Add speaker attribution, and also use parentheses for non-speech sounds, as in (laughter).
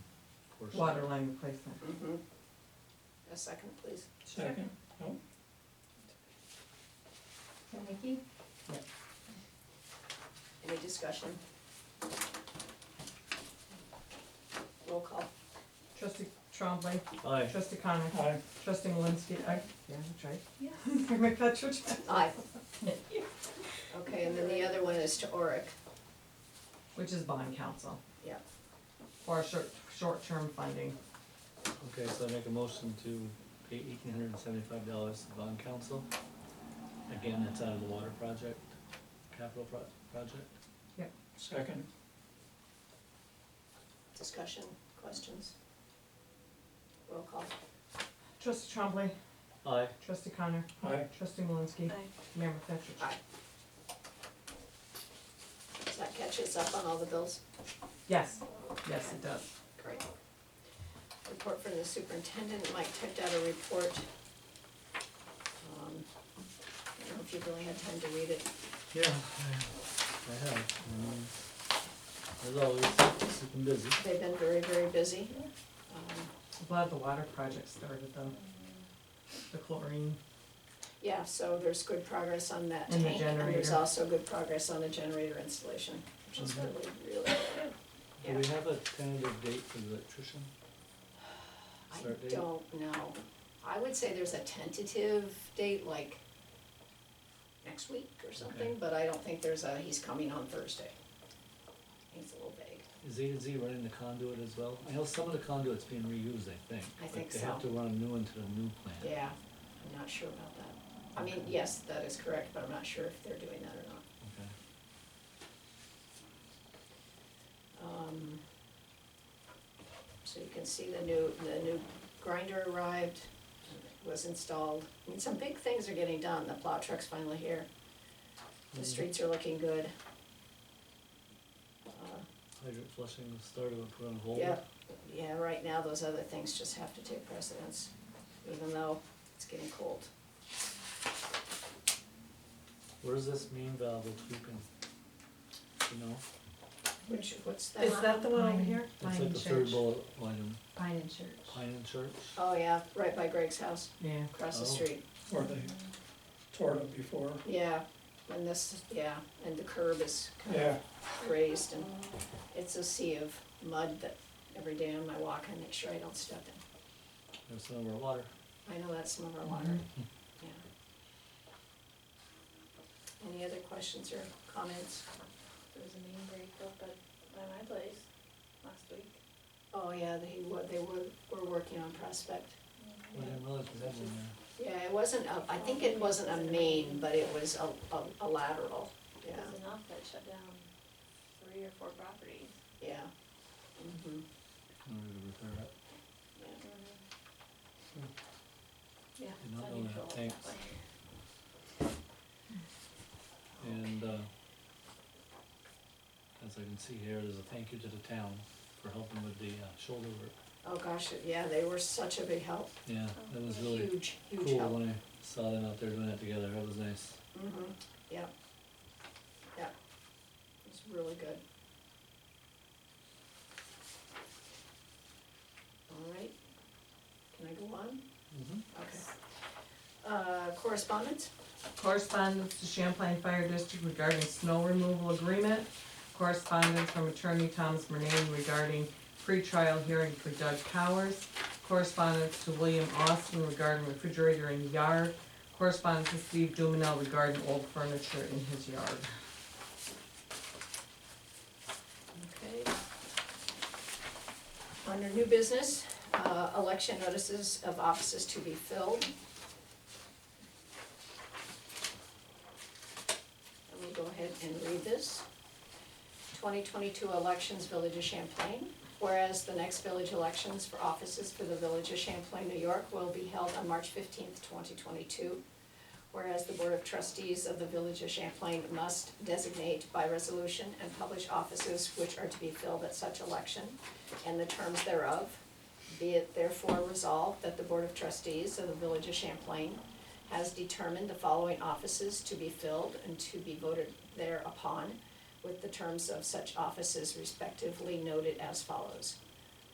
Speaker 1: first.
Speaker 2: water line replacement.
Speaker 3: Mhm. A second, please.
Speaker 1: Second, no,
Speaker 4: Nikki?
Speaker 3: Any discussion? Roll call.
Speaker 2: Trustee Trombley,
Speaker 5: Aye.
Speaker 2: trustee Connor,
Speaker 1: aye,
Speaker 2: trustee Malinsky, I, yeah, that's right.
Speaker 4: Yeah.
Speaker 2: (laughs) Mayor McFetrich,
Speaker 3: Aye. Okay, and then the other one is to Oric.
Speaker 2: which is bond council.
Speaker 3: Yeah.
Speaker 2: For short, short-term funding.
Speaker 5: Okay, so I make a motion to pay eighteen hundred and seventy-five dollars to bond council. Again, that's out of the water project, capital pro- project.
Speaker 1: second,
Speaker 3: Discussion, questions? Roll call.
Speaker 2: Trustee Trombley,
Speaker 5: Aye.
Speaker 2: trustee Connor,
Speaker 1: aye,
Speaker 2: trustee Malinsky,
Speaker 3: Aye.
Speaker 2: Mayor McFetrich.
Speaker 3: Aye. Does that catch us up on all the bills?
Speaker 2: Yes, yes, it does.
Speaker 3: Great. Report from the superintendent, Mike typed out a report. Um, I don't know if you've really had time to read it.
Speaker 5: Yeah, I I have. um, As always, keep them busy.
Speaker 3: They've been very, very busy. Um,
Speaker 2: I'm glad the water project started though. The chlorine,
Speaker 3: Yeah, so there's good progress on that
Speaker 2: And the
Speaker 3: tank, and there's
Speaker 2: generator.
Speaker 3: also good progress on the generator installation, which is really,
Speaker 5: Mhm.
Speaker 3: really good.
Speaker 5: Do we have a tentative date for the electrician? Start
Speaker 3: I
Speaker 5: date?
Speaker 3: don't know. I would say there's a tentative date, like next week or something,
Speaker 5: Okay.
Speaker 3: but I don't think there's a, he's coming on Thursday. He's a little vague.
Speaker 5: Is A to Z running the conduit as well? I know some of the conduit's being reused, I think.
Speaker 3: I
Speaker 5: but
Speaker 3: think
Speaker 5: They have
Speaker 3: so.
Speaker 5: to run a new one to the new plant.
Speaker 3: Yeah, I'm not sure about that. I mean,
Speaker 5: Okay.
Speaker 3: yes, that is correct, but I'm not sure if they're doing that or not.
Speaker 5: Okay.
Speaker 3: Um, So you can see the new, the new grinder arrived, was installed. I mean, some big things are getting done, the plow truck's finally here. The
Speaker 5: Mhm.
Speaker 3: streets are looking good. Uh,
Speaker 5: Hydrant flushing started, we put on hold.
Speaker 3: Yeah, yeah, right now, those other things just have to take precedence, even though it's getting cold.
Speaker 5: What does this mean, valve will tweak and, you know,
Speaker 3: Which, what's that?
Speaker 2: is that the one over here?
Speaker 5: it's like the third bullet item,
Speaker 4: Pine and Church.
Speaker 5: Pine and Church?
Speaker 3: Oh, yeah, right by Greg's house,
Speaker 2: Yeah,
Speaker 3: across the
Speaker 5: Oh.
Speaker 3: street.
Speaker 1: or they tore it up before,
Speaker 3: Yeah, and this, yeah, and the curb is kind of
Speaker 1: yeah,
Speaker 3: raised and it's a sea of mud that every day on my walk I make sure I don't step in.
Speaker 5: There's some of our water.
Speaker 3: I know that's some of our water,
Speaker 5: Mm-hmm.
Speaker 3: yeah. Any other questions or comments?
Speaker 6: There was a main break up at, by my place last week.
Speaker 3: Oh, yeah, they were, they were, were working on Prospect.
Speaker 5: I didn't realize we had one there.
Speaker 3: Yeah, it wasn't a, I think it wasn't a main, but it was a, a, a lateral, yeah,
Speaker 6: It was enough that shut down three or four properties.
Speaker 3: yeah. Mhm.
Speaker 5: I'm ready to repair it.
Speaker 3: Yeah.
Speaker 6: Yeah,
Speaker 5: Did not know
Speaker 6: it's
Speaker 5: that.
Speaker 6: unusual that way.
Speaker 5: Thanks. And, uh, as I can see here, there's a thank you to the town for helping with the uh, shoulder work.
Speaker 3: Oh, gosh, yeah, they were such a big help,
Speaker 5: Yeah, that was really
Speaker 3: Oh, huge, huge
Speaker 5: cool
Speaker 3: help.
Speaker 5: when I saw them out there doing that together, that was nice.
Speaker 3: Mm-hmm, yep, yep, it's really good. All right, can I go on? Okay. Uh, correspondence?
Speaker 2: correspondence to Champlain Fire District regarding snow removal agreement. Correspondence from attorney Thomas Murnane regarding pretrial hearing for Doug Cowers. Correspondence to William Austin regarding refrigerator in yard. Correspondence to Steve Dumanel regarding old furniture in his yard.
Speaker 3: Okay. Under new business, uh, election notices of offices to be filled. I will go ahead and read this. 2022 elections, Village of Champlain. Whereas the next village elections for offices for the Village of Champlain, New York will be held on March 15th, 2022. Whereas the Board of Trustees of the Village of Champlain must designate by resolution and publish offices which are to be filled at such election and the terms thereof. Be it therefore resolved that the Board of Trustees of the Village of Champlain has determined the following offices to be filled and to be voted thereupon with the terms of such offices respectively noted as follows.